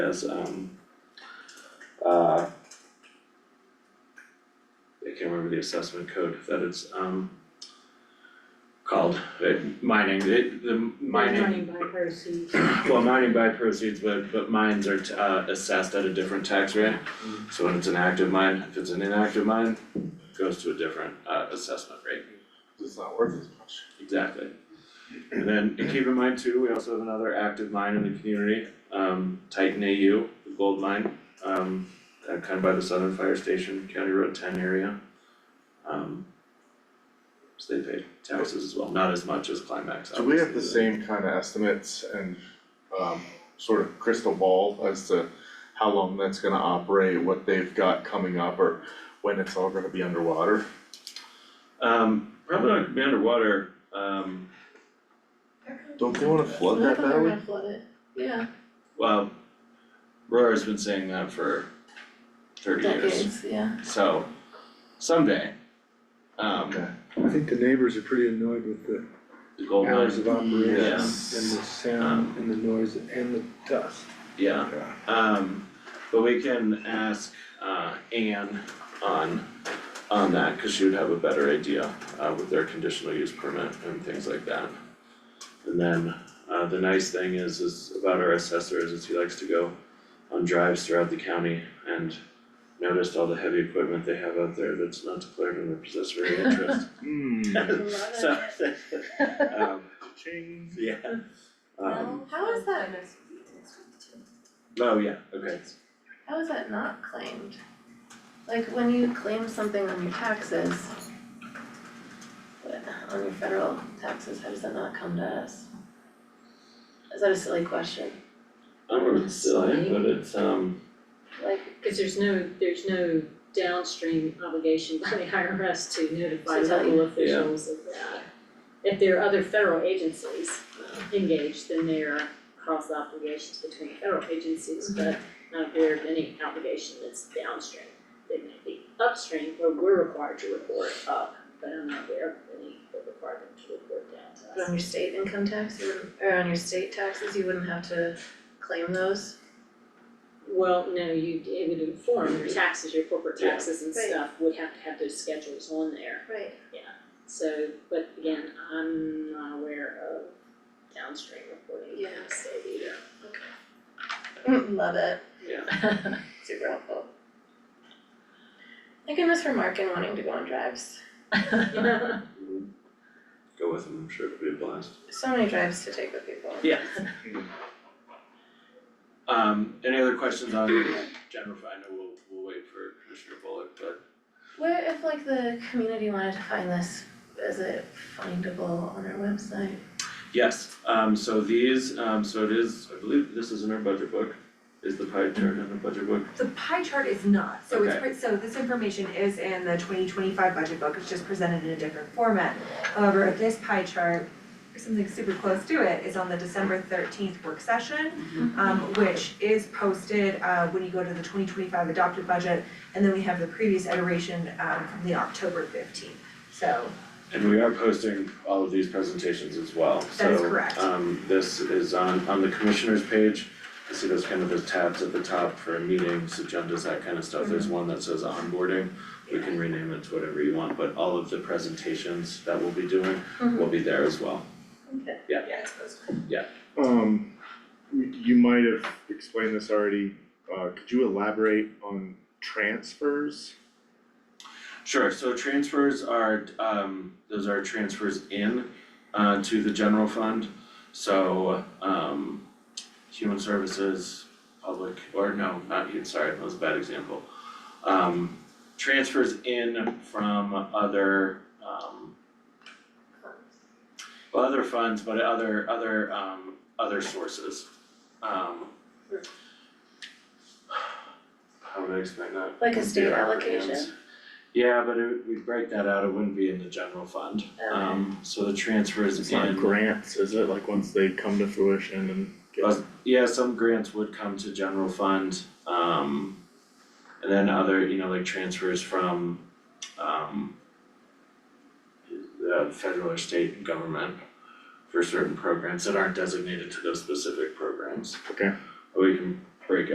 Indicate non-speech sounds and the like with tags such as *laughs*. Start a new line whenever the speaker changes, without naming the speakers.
as, um, uh, I can't remember the assessment code that it's, um, called, uh, mining, it, the mining,
Running by Percy's.
well, mining by proceeds, but, but mines are, t- uh, assessed at a different tax rate. So when it's an active mine, if it's an inactive mine, it goes to a different, uh, assessment rate.
It's not worth as much.
Exactly. And then and keep in mind too, we also have another active mine in the community, um Titan AU, the gold mine, um uh, kind of by the Southern Fire Station, County Road ten area. Um so they pay taxes as well, not as much as Climax,
Do we have the
obviously,
same kind of estimates and um sort of crystal ball as to how long that's gonna operate, what they've got coming up, or when it's all gonna be underwater?
but- Um probably not gonna be underwater, um
Don't they wanna flood that
They're
valley?
gonna flood it, yeah,
well, Roar's been saying that for thirty years,
decades, yeah.
so someday.
Okay.
Um
I think the neighbors are pretty annoyed with the
the gold
hours
mine,
of operation and the
Yes.
sound and the noise and the dust.
yeah. Um, but we can ask uh Anne on on that, cause she would have a better idea uh with their conditional use permit and things like that. And then uh the nice thing is is about our assessor is is he likes to go on drives throughout the county and noticed all the heavy equipment they have out there that's not declared under *laughs* possessory interest.
Hmm.
So, *laughs* um,
Ching.
yeah, um,
How is that,
oh, yeah, okay,
how is that not claimed? Like, when you claim something on your taxes, but on your federal taxes, how does that not come to us? Is that a silly question?
I don't know if it's silly, but it's um,
Like,
Cause there's no, there's no downstream obligation by the IRS to notify
To tell you.
local officials of that. If there are other federal agencies uh, engaged, then there are cross obligations between federal agencies,
Mm-hmm.
but not aware of any obligation that's downstream. They may be upstream where we're required to report up, but I'm not aware of any that require them to report down to us.
but on your state income tax, you wouldn't, or on your state taxes, you wouldn't have to claim those?
Well, no, you, it would inform your taxes, your corporate
Yeah.
taxes and
Right.
stuff would have to have those schedules on there.
Right.
So, but again, I'm not aware of downstream reporting in
Yeah.
the state either.
*laughs* Love it.
yeah.
Super helpful. Thank goodness for Mark and wanting to go on drives.
*laughs*
*laughs*
Go with them, I'm sure it'll be a blast.
So many drives to take with people.
Yeah. Um, any other questions on general fund, we'll, we'll wait for Commissioner Bullock, but
Where if like the community wanted to find this, is it findable on our website?
yes, um, so these, um, so it is, I believe this is in our budget book. Is the pie chart in the budget book?
The pie chart is not, so it's,
Okay.
pre- so this information is in the twenty twenty-five budget book, it's just presented in a different format. However, this pie chart, or something super close to it, is on the December thirteenth work session, um, which is posted, uh, when you go to the twenty twenty-five adopted budget, and then we have the previous iteration, um, from the October fifteenth, so.
And we are posting all of these presentations as well, so.
That is correct.
Um, this is on, on the commissioner's page, you see those kind of those tabs at the top for meetings, agendas, that kind of stuff, there's
Mm-hmm.
one that says onboarding. We can rename it to whatever you want, but all of the presentations that we'll be doing
Mm-hmm.
will be there as well.
Yeah, it's posted.
Um, you- you might have explained this already, uh, could you elaborate on transfers?
Sure, so transfers are, um, those are transfers in, uh, to the general fund. So, um, human services, public, or no, not human, sorry, that was a bad example. Um, transfers in from other, um, well, other funds, but other, other, um, other sources. Um. How would I explain that?
Like a state
Yeah,
allocation?
yes. Yeah, but it, we break that out, it wouldn't be in the general fund, um, so the transfer is
It's not
in,
grants, is it, like once they come to fruition and get
Uh, yeah, some grants would come to general fund, um. And then other, you know, like transfers from, um. The federal or state government for certain programs that aren't designated to those specific programs.
Okay.
But we can break